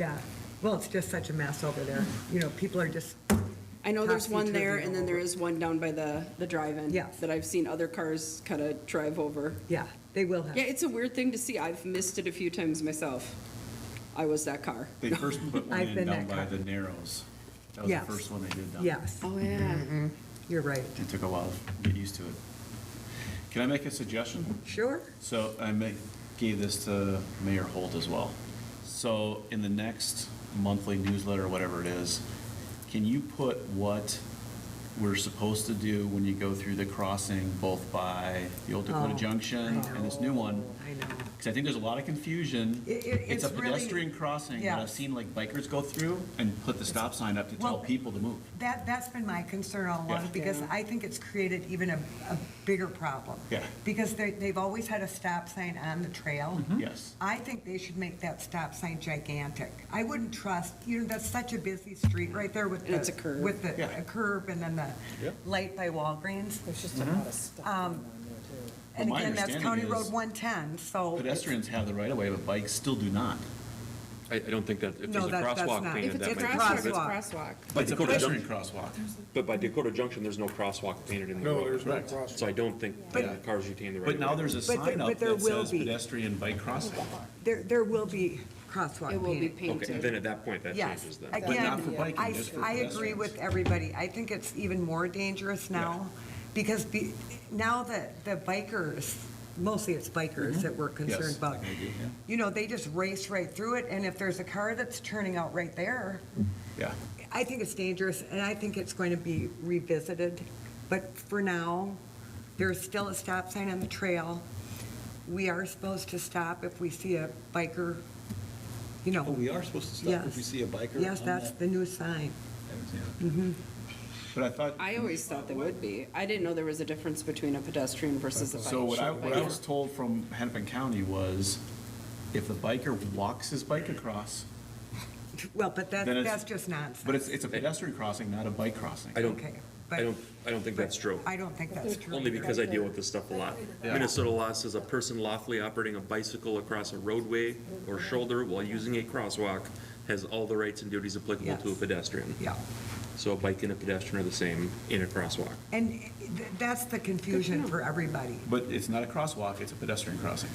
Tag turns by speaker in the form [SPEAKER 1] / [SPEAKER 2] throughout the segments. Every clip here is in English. [SPEAKER 1] Yeah, well, it's just such a mess over there. You know, people are just,
[SPEAKER 2] I know there's one there,
[SPEAKER 1] Topsy-turvy
[SPEAKER 2] and then there is one down by the, the drive-in.
[SPEAKER 1] Yeah.
[SPEAKER 2] That I've seen other cars kind of drive over.
[SPEAKER 1] yeah, they will
[SPEAKER 2] Yeah,
[SPEAKER 1] have,
[SPEAKER 2] it's a weird thing to see. I've missed it a few times myself. I was that car.
[SPEAKER 3] They first put one
[SPEAKER 1] I've
[SPEAKER 3] in
[SPEAKER 1] been
[SPEAKER 3] down
[SPEAKER 1] that
[SPEAKER 3] by
[SPEAKER 1] kind.
[SPEAKER 3] the Narrows. That was the
[SPEAKER 1] Yes.
[SPEAKER 3] first one they did down. there.
[SPEAKER 1] yes,
[SPEAKER 2] Oh, yeah.
[SPEAKER 1] you're right.
[SPEAKER 3] It took a while to get used to it. Can I make a suggestion?
[SPEAKER 1] Sure?
[SPEAKER 3] So I ma- gave this to Mayor Holt as well. So in the next monthly newsletter, whatever it is, can you put what we're supposed to do when you go through the crossing, both by the old Dakota
[SPEAKER 1] Oh,
[SPEAKER 3] Junction
[SPEAKER 1] I
[SPEAKER 3] and this new one?
[SPEAKER 1] I know.
[SPEAKER 3] Because I think there's a lot of confusion.
[SPEAKER 1] It- it-
[SPEAKER 3] It's a
[SPEAKER 1] it's really-
[SPEAKER 3] pedestrian crossing, but
[SPEAKER 1] Yeah.
[SPEAKER 3] I've seen like bikers go through and put the stop sign up to tell
[SPEAKER 1] Well-
[SPEAKER 3] people to move.
[SPEAKER 1] That, that's been my concern all
[SPEAKER 3] Yeah.
[SPEAKER 1] along, because I think it's created even a, a bigger problem.
[SPEAKER 3] Yeah.
[SPEAKER 1] Because they, they've always had a stop sign on the trail.
[SPEAKER 3] Yes.
[SPEAKER 1] I think they should make that stop sign gigantic. I wouldn't trust, you know, that's such a busy street right there with the.
[SPEAKER 2] And it's a curve.
[SPEAKER 1] With the
[SPEAKER 3] Yeah.
[SPEAKER 1] a curve and then the
[SPEAKER 3] Yep.
[SPEAKER 1] light by Walgreens. Um,
[SPEAKER 4] There's just a lot of stuff going on there,
[SPEAKER 1] And
[SPEAKER 4] too.
[SPEAKER 3] Mm-hmm. Well, my
[SPEAKER 1] again, that's County
[SPEAKER 3] understanding
[SPEAKER 1] Road
[SPEAKER 3] is
[SPEAKER 1] 110, so.
[SPEAKER 3] Pedestrians have the right of way, but bikes still do not.
[SPEAKER 5] I, I don't think that, if
[SPEAKER 1] No,
[SPEAKER 5] there's a
[SPEAKER 1] that- that's
[SPEAKER 5] crosswalk
[SPEAKER 1] not-
[SPEAKER 5] painted,
[SPEAKER 1] If
[SPEAKER 5] that
[SPEAKER 1] it's
[SPEAKER 5] might
[SPEAKER 1] a
[SPEAKER 5] be.
[SPEAKER 1] crosswalk.
[SPEAKER 5] but-
[SPEAKER 2] crosswalk.
[SPEAKER 5] But
[SPEAKER 3] It's a
[SPEAKER 5] Dakota
[SPEAKER 3] pedestrian
[SPEAKER 5] Junction,
[SPEAKER 3] crosswalk.
[SPEAKER 5] but by Dakota Junction, there's no crosswalk painted in the
[SPEAKER 6] No,
[SPEAKER 5] road.
[SPEAKER 6] there's no
[SPEAKER 3] Correct.
[SPEAKER 6] crosswalk.
[SPEAKER 5] So I don't think
[SPEAKER 1] But-
[SPEAKER 5] that cars retain the right of
[SPEAKER 3] But now there's a
[SPEAKER 1] But there-
[SPEAKER 3] sign
[SPEAKER 1] but
[SPEAKER 3] up
[SPEAKER 1] there
[SPEAKER 3] that
[SPEAKER 1] will
[SPEAKER 3] says
[SPEAKER 1] be.
[SPEAKER 3] pedestrian bike crossing.
[SPEAKER 1] There, there will be crosswalk
[SPEAKER 2] It will be
[SPEAKER 1] painting.
[SPEAKER 5] Okay, then
[SPEAKER 2] painted.
[SPEAKER 5] at that point, that changes
[SPEAKER 1] Yes.
[SPEAKER 5] then.
[SPEAKER 3] But not for
[SPEAKER 1] Again,
[SPEAKER 3] biking,
[SPEAKER 1] I,
[SPEAKER 3] just for
[SPEAKER 1] I agree with
[SPEAKER 3] pedestrians.
[SPEAKER 1] everybody. I think it's even more dangerous now because be- now that the bikers, mostly it's bikers that we're concerned
[SPEAKER 3] Mm-hmm. Yes,
[SPEAKER 1] about.
[SPEAKER 3] I agree, yeah.
[SPEAKER 1] You know, they just race right through it and if there's a car that's turning out right there,
[SPEAKER 3] Yeah.
[SPEAKER 1] I think it's dangerous and I think it's going to be revisited. But for now, there's still a stop sign on the trail. We are supposed to stop if we see a biker, you know.
[SPEAKER 3] Oh, we are supposed to stop if we see a biker?
[SPEAKER 1] Yes,
[SPEAKER 3] on
[SPEAKER 1] that's
[SPEAKER 3] that?
[SPEAKER 1] the Mm-hmm. new sign.
[SPEAKER 3] I haven't seen it. But I thought.
[SPEAKER 2] I always thought they would be. I didn't know there was a difference between a pedestrian versus a bike.
[SPEAKER 3] So what I, what I was told from Hennepin County was if the biker walks his bike across,
[SPEAKER 1] Well, but that,
[SPEAKER 3] Then it's-
[SPEAKER 1] that's just nonsense.
[SPEAKER 3] but it's, it's a pedestrian crossing, not a bike crossing.
[SPEAKER 5] I don't,
[SPEAKER 1] Okay, but-
[SPEAKER 5] I don't, I don't think that's true.
[SPEAKER 1] I don't think that's true.
[SPEAKER 5] Only
[SPEAKER 1] either.
[SPEAKER 5] because I deal with this stuff a lot.
[SPEAKER 3] Yeah.
[SPEAKER 5] Minnesota law says a person lawfully operating a bicycle across a roadway or shoulder while using a crosswalk has all the rights and duties applicable to a
[SPEAKER 1] Yes.
[SPEAKER 5] pedestrian.
[SPEAKER 1] Yeah,
[SPEAKER 5] So a bike and a pedestrian are the same in a crosswalk.
[SPEAKER 1] and th- that's the confusion for everybody.
[SPEAKER 3] But it's not a crosswalk, it's a pedestrian crossing.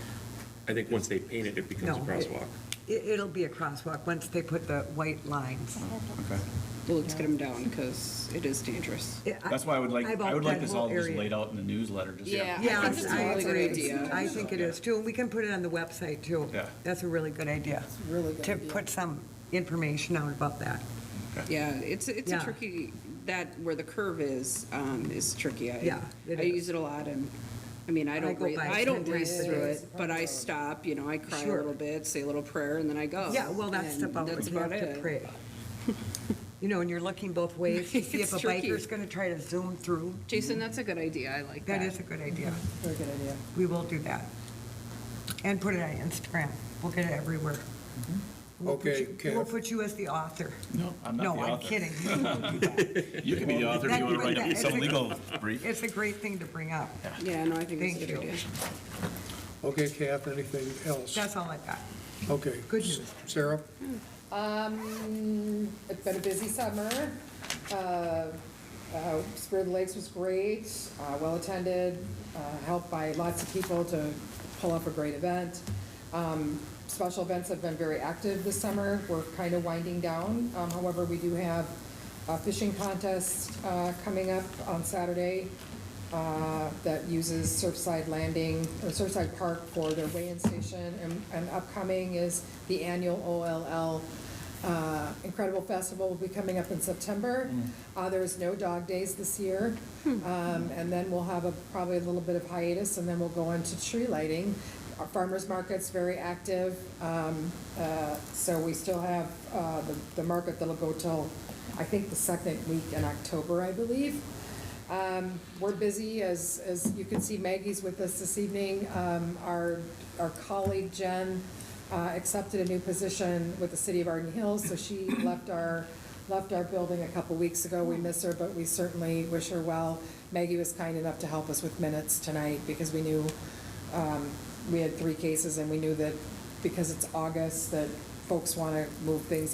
[SPEAKER 5] I think once they paint it, it becomes a
[SPEAKER 1] No, it-
[SPEAKER 5] crosswalk.
[SPEAKER 1] It, it'll be a crosswalk once they put the white lines.
[SPEAKER 3] Okay.
[SPEAKER 2] Well, let's get them down because it is dangerous.
[SPEAKER 1] It- I-
[SPEAKER 3] That's why I would like,
[SPEAKER 1] I've
[SPEAKER 3] I would
[SPEAKER 1] out-
[SPEAKER 3] like
[SPEAKER 1] that
[SPEAKER 3] this
[SPEAKER 1] whole
[SPEAKER 3] all just
[SPEAKER 1] area.
[SPEAKER 3] laid out in the newsletter, just.
[SPEAKER 2] Yeah. I think
[SPEAKER 1] Yes,
[SPEAKER 2] it's a
[SPEAKER 1] I
[SPEAKER 2] really good
[SPEAKER 1] agree.
[SPEAKER 2] idea.
[SPEAKER 1] I think it is too, and we can put it on the website too.
[SPEAKER 3] Yeah.
[SPEAKER 1] That's a really good idea.
[SPEAKER 4] a really good
[SPEAKER 1] To
[SPEAKER 4] idea.
[SPEAKER 1] put some information out about that.
[SPEAKER 2] Yeah, it's, it's a
[SPEAKER 1] Yeah.
[SPEAKER 2] tricky, that, where the curve is, um, is tricky. I-
[SPEAKER 1] Yeah, it
[SPEAKER 2] I
[SPEAKER 1] is.
[SPEAKER 2] use it a lot and, I mean, I
[SPEAKER 1] I
[SPEAKER 2] don't,
[SPEAKER 1] go
[SPEAKER 2] race-
[SPEAKER 1] by
[SPEAKER 2] I don't
[SPEAKER 1] sometimes.
[SPEAKER 2] race through it, but I stop, you know, I cry a
[SPEAKER 1] Sure.
[SPEAKER 2] little bit, say a little prayer and Oh, then I go.
[SPEAKER 1] Yeah, well, that's
[SPEAKER 2] And
[SPEAKER 1] about
[SPEAKER 2] that's
[SPEAKER 1] what you have
[SPEAKER 2] about
[SPEAKER 1] to
[SPEAKER 2] it.
[SPEAKER 1] pray. You know, and you're looking both ways to see if
[SPEAKER 2] It's
[SPEAKER 1] a
[SPEAKER 2] tricky.
[SPEAKER 1] biker's going to try to zoom through.
[SPEAKER 2] Jason, that's a good idea. I like that.
[SPEAKER 1] That is a good idea.
[SPEAKER 4] Very good idea.
[SPEAKER 1] We will do that. And put it on Instagram. We'll get it everywhere. We'll put
[SPEAKER 6] Okay,
[SPEAKER 1] you- We'll
[SPEAKER 6] Kev.
[SPEAKER 1] put you as the author.
[SPEAKER 3] No, I'm not the
[SPEAKER 1] No, I'm
[SPEAKER 3] author.
[SPEAKER 1] kidding. We won't do that.
[SPEAKER 3] You can be the author if
[SPEAKER 1] That-
[SPEAKER 3] you want to
[SPEAKER 1] but
[SPEAKER 3] write
[SPEAKER 1] that-
[SPEAKER 3] up some
[SPEAKER 1] it's a-
[SPEAKER 3] legal brief.
[SPEAKER 1] It's a great thing to bring up.
[SPEAKER 2] Yeah, no, I think it's
[SPEAKER 1] Thank
[SPEAKER 2] a good
[SPEAKER 1] you.
[SPEAKER 2] idea.
[SPEAKER 6] Okay, Kath, anything else?
[SPEAKER 1] That's all I got.
[SPEAKER 6] Okay.
[SPEAKER 1] Good news.
[SPEAKER 6] Sarah?
[SPEAKER 4] Um, it's been a busy summer. Uh, uh, Spring of the Lakes was great, uh, well-attended, uh, helped by lots of people to pull off a great event. Um, Special events have been very active this summer. We're kind of winding down. Um, However, we do have a fishing contest uh, coming up on Saturday uh, that uses Surfside Landing, or Surfside Park for their weigh-in station. And- And upcoming is the annual OLL uh, Incredible Festival will be coming up in September. Uh, There is no dog days this year. Um, And then we'll have a, probably a little bit of hiatus, and then we'll go into tree lighting. Our farmer's market's very active, um, uh, so we still have uh, the the market that'll go till, I think, the second week in October, I believe. Um, We're busy, as, as you can see, Maggie's with us this evening. Um, Our, our colleague Jen uh, accepted a new position with the city of Arden Hills, so she left our, left our building a couple weeks ago. We miss her, but we certainly wish her well. Maggie was kind enough to help us with minutes tonight because we knew, um, we had three cases and we knew that because it's August, that folks want to move things